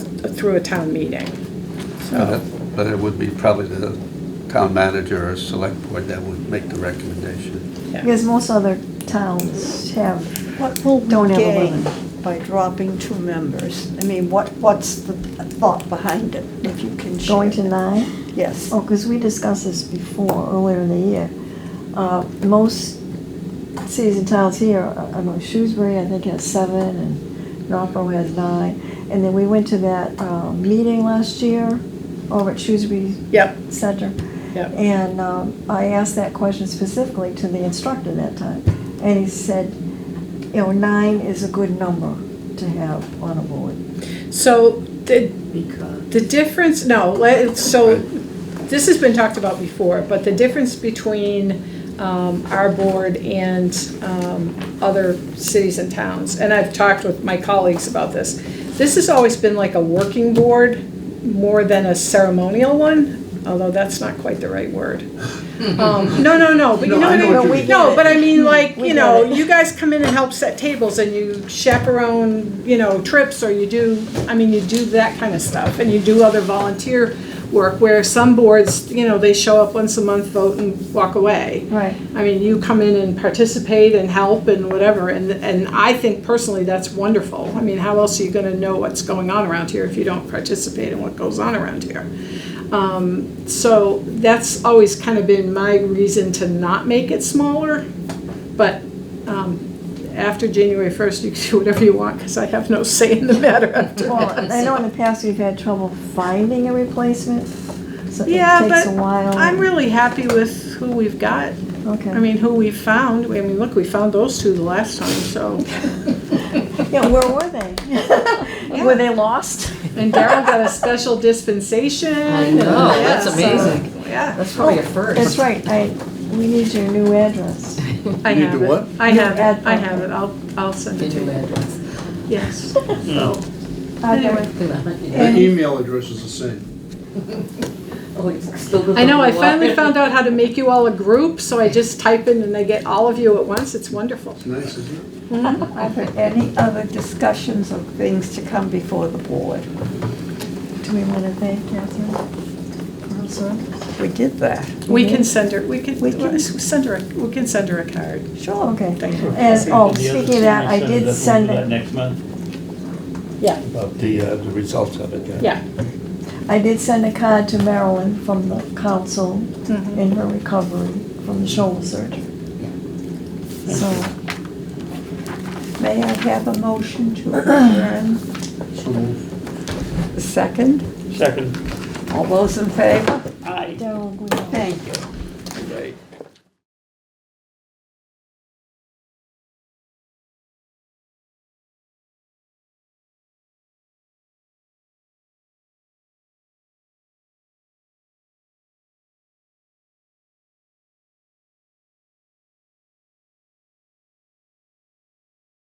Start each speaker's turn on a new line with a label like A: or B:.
A: through a town meeting.
B: But
A: So,
B: it- Uh, but it would be probably the town manager or select board that would make the recommendation.
A: yeah.
C: Because most other towns have,
D: What will
C: Don't have
D: we
C: a
D: gain
C: lemon.
D: by dropping two members? I mean, what, what's the thought behind it, if you can share?
C: going to
D: that?
C: nine?
D: Yes.
C: Oh, because we discussed this before, earlier in the year. Uh, Most cities and towns here, uh, I know Shrewsbury, I think, has seven, and Norfolk has nine. And then we went to that uh, meeting last year over at Shrewsbury
A: Yep,
C: Center.
A: yep.
C: And um, I asked that question specifically to the instructor that time, and he said, you know, nine is a good number to have on a board.
A: So the, the difference, no, let- so this has been talked about before, but the difference between um, our board and um, other cities and towns, and I've talked with my colleagues about this, this has always been like a working board more than a ceremonial one, although that's not quite the right word. Um, No, no, no, but you know
B: No,
A: what
B: I
A: I
B: know
A: mean?
B: what you mean.
A: No, but I mean, like,
C: We
A: you
C: get
A: know,
C: it.
A: you guys come in and help set tables and you chaperone, you know, trips or you do, I mean, you do that kind of stuff and you do other volunteer work where some boards, you know, they show up once a month, vote and walk away.
C: Right.
A: I mean, you come in and participate and help and whatever, and, and I think personally that's wonderful. I mean, how else are you gonna know what's going on around here if you don't participate in what goes on around here? Um, so that's always kind of been my reason to not make it smaller, but, um, after January first, you can do whatever you want, because I have no say in the matter after
C: Well,
A: that.
C: I know in the past we've had trouble finding a replacement, so it
A: Yeah,
C: takes a
A: but
C: while.
A: I'm really happy with who we've got. I
C: Okay,
A: mean, who we found, I mean, look, we found those two the last time, so.
C: yeah, where were they? Were they lost?
A: And Daryl got a special dispensation.
E: I know, that's
A: Yeah, so-
E: amazing. Oh,
A: Yeah,
E: That's probably a
C: That's
E: first.
C: right, I, we need your new address.
A: I
B: You
A: have
B: do
A: it.
B: what?
A: I
C: You
A: have
C: add
A: it, I
C: that.
A: have it, I'll, I'll send
E: The
A: it to
E: new
A: you,
E: address.
A: yes.
E: Hmm.
A: So,
C: Are Uh, there-
A: Anyway.
E: Oh,
C: And-
F: The email address is the same.
E: Oh, it's still good
A: I know, I
E: for a
A: finally
E: while.
A: found out how to make you all a group, so I just type in and I get all of you at once, it's wonderful.
F: It's nice, isn't it?
C: Mm-hmm.
D: Are there any other discussions of things to come before the board?
C: Do we want to thank Catherine for her service?
D: We did that.
A: We can send her, we can,
D: We can-
A: send her, a- we can send her a card.
D: Sure.
C: Okay,
A: Thank you.
C: and, oh,
G: And the other
C: speaking of that, I
G: thing we
C: did
G: sent,
C: send
G: that we'll do that
C: it,
G: next month,
A: Yeah,
B: About the, uh, the results of it, yeah.
A: yeah.
C: I did send a card to Marilyn from the council
A: Mhm.
C: in her recovery from the shoulder surgery. So,
D: May I have a motion to adjourn?
F: So moved.
D: Second?
G: second.
D: All those in favor?
G: Aye.
C: Daryl, we-
D: Thank you.